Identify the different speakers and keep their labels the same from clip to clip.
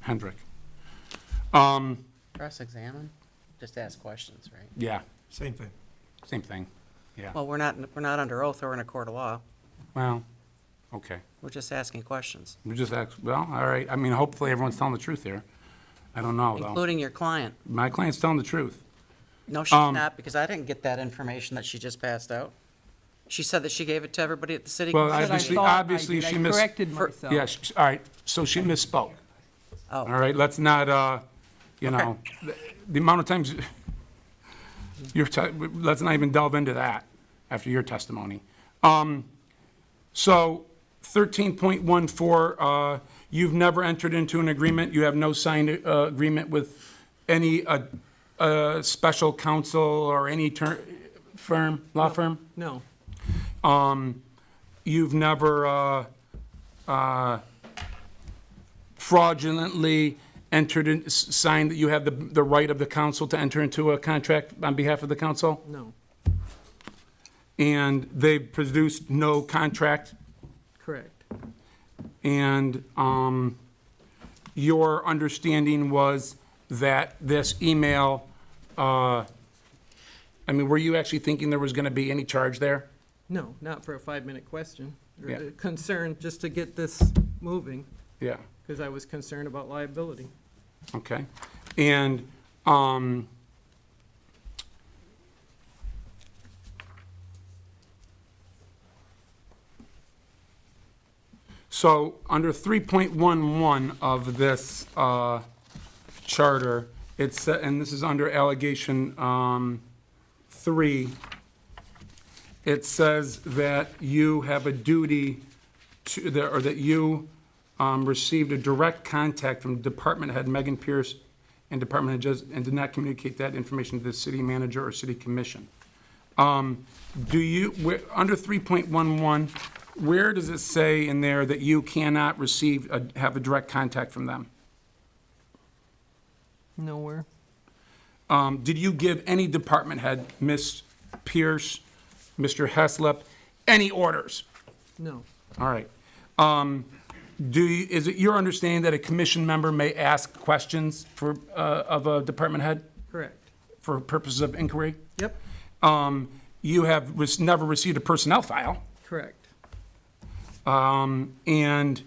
Speaker 1: Hendrick. Um,
Speaker 2: Cross-examine? Just ask questions, right?
Speaker 1: yeah,
Speaker 3: Same thing.
Speaker 1: same thing, yeah.
Speaker 2: Well, we're not, we're not under oath or in a court of law.
Speaker 1: Well, okay.
Speaker 2: We're just asking questions,
Speaker 1: We just ask, well, all right, I mean, hopefully everyone's telling the truth here. I don't know, though.
Speaker 2: including your client.
Speaker 1: My client's telling the truth.
Speaker 2: No, she's
Speaker 1: Um,
Speaker 2: not, because I didn't get that information that she just passed out. She said that she gave it to everybody at the city.
Speaker 1: Well,
Speaker 2: council. Oh,
Speaker 4: Said I
Speaker 1: obviously,
Speaker 4: thought I
Speaker 1: obviously
Speaker 4: did. I
Speaker 1: she mis-
Speaker 4: corrected myself.
Speaker 1: Yeah, she- all right, so she misspoke.
Speaker 2: Oh.
Speaker 1: All right, let's not, uh, you know, the- the amount of times you're, te- let's not even delve into that after your testimony. Um, So 13.14, uh, you've never entered into an agreement, you have no signed uh, agreement with any uh, uh, special counsel or any ter- firm, law firm?
Speaker 4: No,
Speaker 1: you've never uh, uh, fraudulently entered in, s- signed that you have the, the right of the council to enter into a contract on behalf of the council?
Speaker 4: no,
Speaker 1: And they produced no contract,
Speaker 4: correct.
Speaker 1: and um, your understanding was that this email, uh, I mean, were you actually thinking there was going to be any charge there?
Speaker 4: No, not for a five-minute question. or
Speaker 1: Yeah.
Speaker 4: a Concern, just to get this moving,
Speaker 1: Yeah.
Speaker 4: because I was concerned about liability.
Speaker 1: Okay, and, um, so, under three point one one of this, uh, charter, it's, and this is under allegation, um, three, it says that you have a duty to, that- or that you um, received a direct contact from Department Head Megan Pierce and Department Head Jez, and did not communicate that information to the city manager or city commission. Um, Do you, where- under 3.11, where does it say in there that you cannot receive, a- have a direct contact from them?
Speaker 4: Nowhere.
Speaker 1: Um, Did you give any department head, Ms. Pierce, Mr. Heslop, any orders?
Speaker 4: No,
Speaker 1: All right. Um, Do, you- is it your understanding that a commission member may ask questions for, uh, of a department head
Speaker 4: correct.
Speaker 1: for purposes of inquiry?
Speaker 4: Yep,
Speaker 1: Um, You have rec- never received a personnel file,
Speaker 4: correct.
Speaker 1: um, and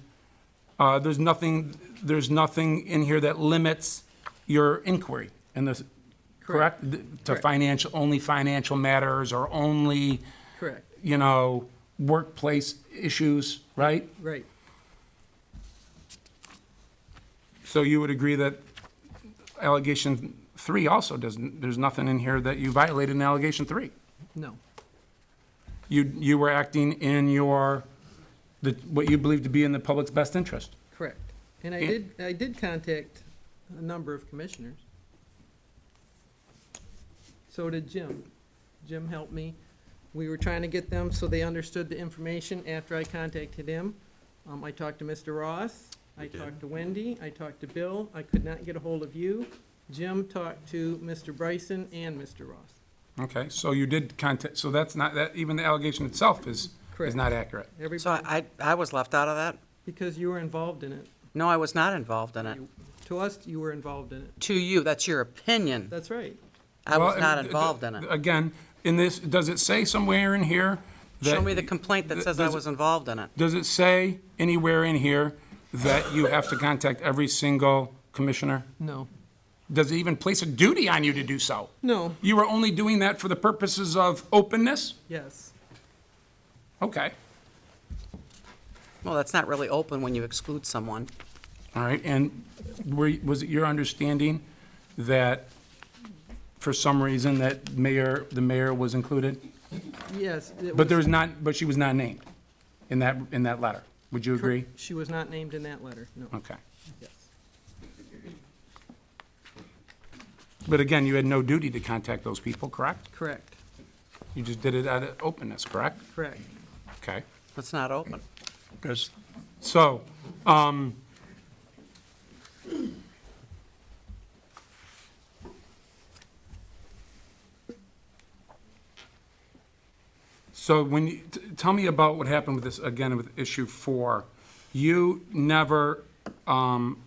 Speaker 1: uh, there's nothing, there's nothing in here that limits your inquiry in this, correct? Th- To
Speaker 4: Correct.
Speaker 1: financial, only financial matters or only,
Speaker 4: Correct,
Speaker 1: you know, workplace issues, right?
Speaker 4: right,
Speaker 1: So you would agree that allegation three also doesn't, there's nothing in here that you violated in allegation three?
Speaker 4: no,
Speaker 1: You, you were acting in your, the, what you believe to be in the public's best interest?
Speaker 4: correct. And I
Speaker 1: Yeah.
Speaker 4: did, I did contact a number of commissioners. So did Jim. Jim helped me. We were trying to get them so they understood the information after I contacted him. Um, I talked to Mr. Ross, I talked to Wendy, I talked to Bill, I could not get a hold of you. Jim talked to Mr. Bryson and Mr. Ross.
Speaker 1: Okay, so you did contact, so that's not, that, even the allegation itself is, is
Speaker 4: Correct.
Speaker 1: not accurate.
Speaker 2: So
Speaker 4: Everybody,
Speaker 2: I, I was left out of that?
Speaker 4: because you were involved in it.
Speaker 2: No, I was not involved in it.
Speaker 4: To us, you were involved in it.
Speaker 2: To you, that's your opinion.
Speaker 4: That's right.
Speaker 2: I was
Speaker 1: Well,
Speaker 2: not
Speaker 1: and-
Speaker 2: involved in it.
Speaker 1: Again, in this, does it say somewhere in here that?
Speaker 2: Show me the complaint that says I
Speaker 1: does-
Speaker 2: was involved in it.
Speaker 1: Does it say anywhere in here that you have to contact every single commissioner?
Speaker 4: No,
Speaker 1: Does it even place a duty on you to do so?
Speaker 4: no,
Speaker 1: You were only doing that for the purposes of openness?
Speaker 4: yes.
Speaker 1: Okay,
Speaker 2: Well, that's not really open when you exclude someone.
Speaker 1: all right, and were, was it your understanding that, for some reason, that mayor, the mayor was included?
Speaker 4: Yes. it
Speaker 1: But there
Speaker 4: was-
Speaker 1: was not, but she was not named in that, in that letter, would you agree?
Speaker 4: She was not named in that letter, no.
Speaker 1: Okay,
Speaker 4: Yes.
Speaker 1: but again, you had no duty to contact those people, correct?
Speaker 4: Correct,
Speaker 1: You just did it out of openness, correct?
Speaker 4: correct.
Speaker 1: Okay.
Speaker 2: It's not open.
Speaker 3: Because
Speaker 1: So, um, so when you, t- tell me about what happened with this, again, with issue four. You never, um,